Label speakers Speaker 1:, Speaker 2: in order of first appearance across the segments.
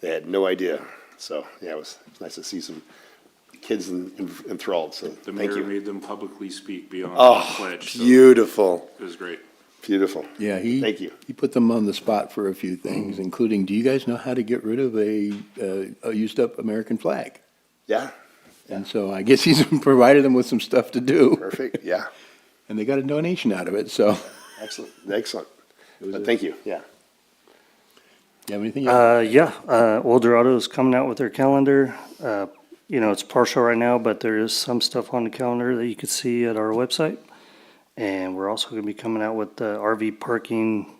Speaker 1: They had no idea. So, yeah, it was nice to see some kids en- en- enthralled, so
Speaker 2: The
Speaker 1: thank
Speaker 2: mayor
Speaker 1: you.
Speaker 2: made them publicly speak beyond the
Speaker 1: Oh,
Speaker 2: pledge, so it
Speaker 1: beautiful,
Speaker 2: was great.
Speaker 1: beautiful.
Speaker 3: Yeah, he.
Speaker 1: Thank you. Mm-hmm.
Speaker 3: He put them on the spot for a few things, including, do you guys know how to get rid of a, uh, a used-up American flag?
Speaker 1: Yeah,
Speaker 3: And so I guess he's provided them with some stuff to do,
Speaker 1: perfect, yeah,
Speaker 3: and they got a donation out of it, so.
Speaker 1: excellent, excellent.
Speaker 3: It was
Speaker 1: But
Speaker 3: a-
Speaker 1: thank you, yeah.
Speaker 3: You have anything? else?
Speaker 4: Uh, yeah, uh, Old Dorado's coming out with their calendar. Uh, you know, it's partial right now, but there is some stuff on the calendar that you could see at our website. And we're also going to be coming out with the RV parking,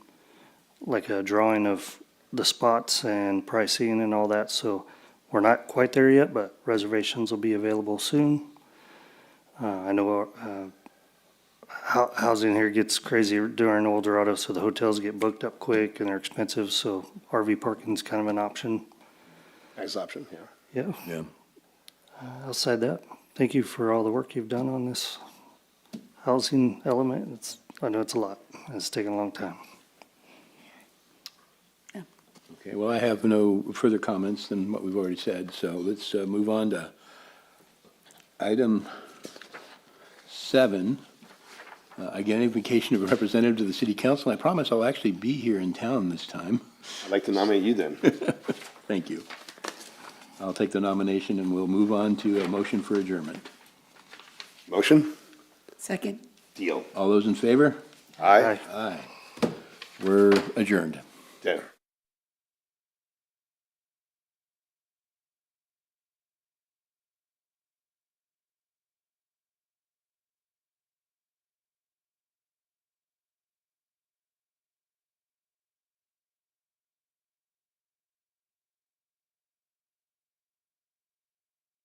Speaker 4: like a drawing of the spots and pricing and all that. So we're not quite there yet, but reservations will be available soon. Uh, I know, uh, hou- housing here gets crazy during El Dorado, so the hotels get booked up quick and they're expensive, so RV parking's kind of an option.
Speaker 1: Nice option, yeah.
Speaker 4: Yeah.
Speaker 3: Yeah.
Speaker 4: Outside that, thank you for all the work you've done on this housing element. It's, I know it's a lot. It's taken a long time.
Speaker 3: Okay, well, I have no further comments than what we've already said, so let's uh, move on to item seven. Uh, Identification of a representative to the city council. I promise I'll actually be here in town this time.
Speaker 1: I'd like to nominate you then.
Speaker 3: Thank you. I'll take the nomination and we'll move on to a motion for adjournment.
Speaker 1: Motion?
Speaker 5: Second.
Speaker 1: Deal.
Speaker 3: All those in favor?
Speaker 1: Aye.
Speaker 3: Aye. We're adjourned.
Speaker 1: Yeah.